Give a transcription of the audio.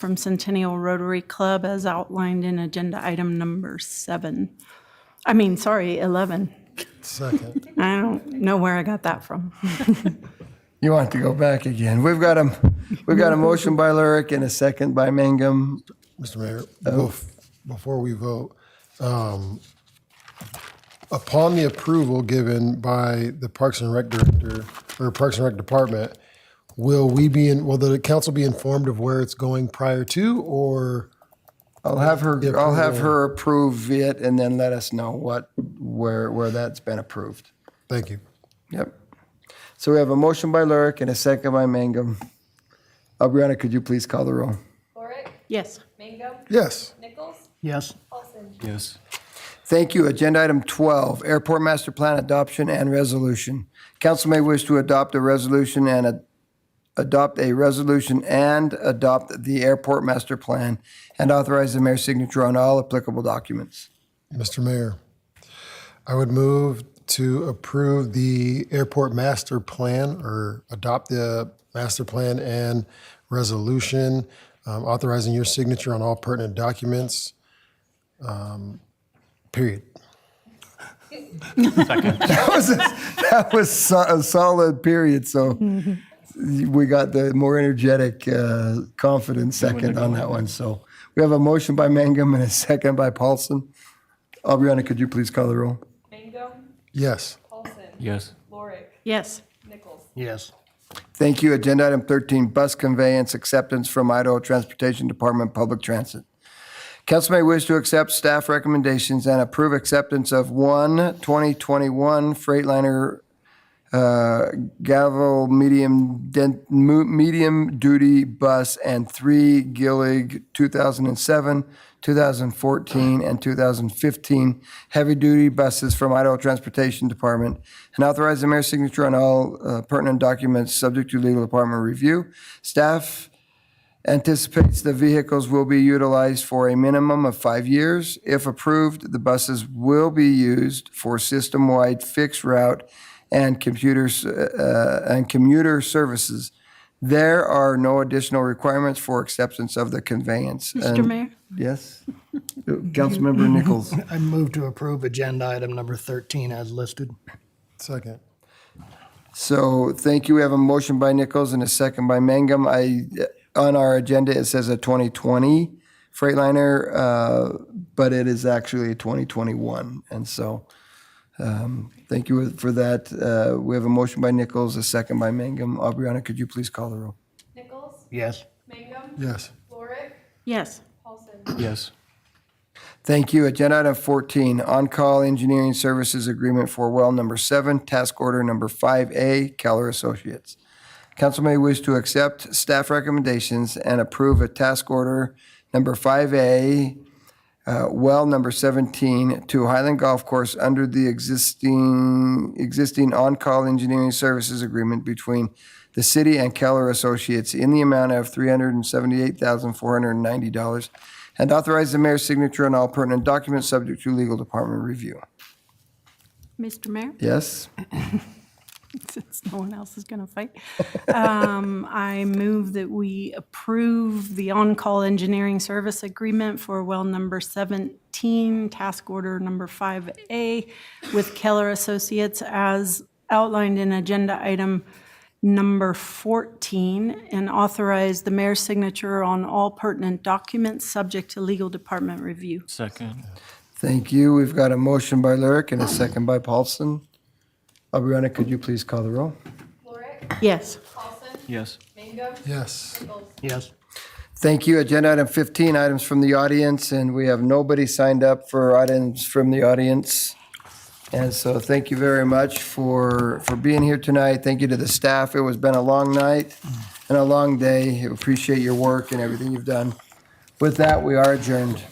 from Centennial Rotary Club as outlined in agenda item number seven. I mean, sorry, 11. Second. I don't know where I got that from. You want to go back again. We've got a, we've got a motion by Lurick and a second by Mangum. Mr. Mayor, bef- before we vote, um, upon the approval given by the Parks and Rec Director or Parks and Rec Department, will we be in, will the council be informed of where it's going prior to or? I'll have her, I'll have her approve it and then let us know what, where, where that's been approved. Thank you. Yep. So we have a motion by Lurick and a second by Mangum. Aubriana, could you please call the roll? Lorick, Yes. Mangum, Yes. Nichols, yes, Paulson. yes, Thank you. Agenda item 12, Airport Master Plan Adoption and Resolution. Council may wish to adopt a resolution and a- adopt a resolution and adopt the Airport Master Plan and authorize the mayor's signature on all applicable documents. Mr. Mayor, I would move to approve the airport master plan or adopt the master plan and resolution um, authorizing your signature on all pertinent documents. um, Period. That was a- That was so- a solid period, so we got the more energetic, uh, confident second on that one. So we have a motion by Mangum and a second by Paulson. Aubriana, could you please call the roll? Mangum, Yes. Paulson. yes, Lorick, Yes. Nichols. yes, Thank you. Agenda item 13, bus conveyance acceptance from Idaho Transportation Department Public Transit. Council may wish to accept staff recommendations and approve acceptance of one 2021 Freightliner uh, Gavel medium den- mu- medium duty bus and three Gillig 2007, 2014, and 2015 heavy duty buses from Idaho Transportation Department and authorize the mayor's signature on all uh, pertinent documents subject to legal department review. Staff anticipates the vehicles will be utilized for a minimum of five years. If approved, the buses will be used for system-wide fixed route and computers, uh, and commuter services. There are no additional requirements for acceptance of the conveyance. Mr. And- Mayor? Yes? Councilmember Nichols. I move to approve agenda item number 13 as listed. Second. So thank you. We have a motion by Nichols and a second by Mangum. I, on our agenda, it says a 2020 Freightliner, uh, but it is actually a 2021. And so um, thank you for that. Uh, We have a motion by Nichols, a second by Mangum. Aubriana, could you please call the roll? Nichols, Yes, Mangum, Yes. Lorick, Yes. Paulson. yes, Thank you. Agenda item 14, on-call engineering services agreement for well number seven, task order number 5A, Keller Associates. Council may wish to accept staff recommendations and approve a task order number 5A, uh, well number 17, to Highland Golf Course under the existing, existing on-call engineering services agreement between the city and Keller Associates in the amount of $378,490 and authorize the mayor's signature on all pertinent documents subject to legal department review. Mr. Mayor? Yes? since no one else is going to fight. Um, I move that we approve the on-call engineering service agreement for well number 17, task order number 5A with Keller Associates as outlined in agenda item number 14, and authorize the mayor's signature on all pertinent documents subject to legal department review. second, Thank you. We've got a motion by Lyric and a second by Paulson. Aubriana, could you please call the roll? Lorick, Yes. Paulson. yes, Mangum. Yes. Nichols. yes, Thank you. Agenda item 15, items from the audience, and we have nobody signed up for items from the audience. And so thank you very much for, for being here tonight. Thank you to the staff. It was been a long night and a long day. Appreciate your work and everything you've done. With that, we are adjourned.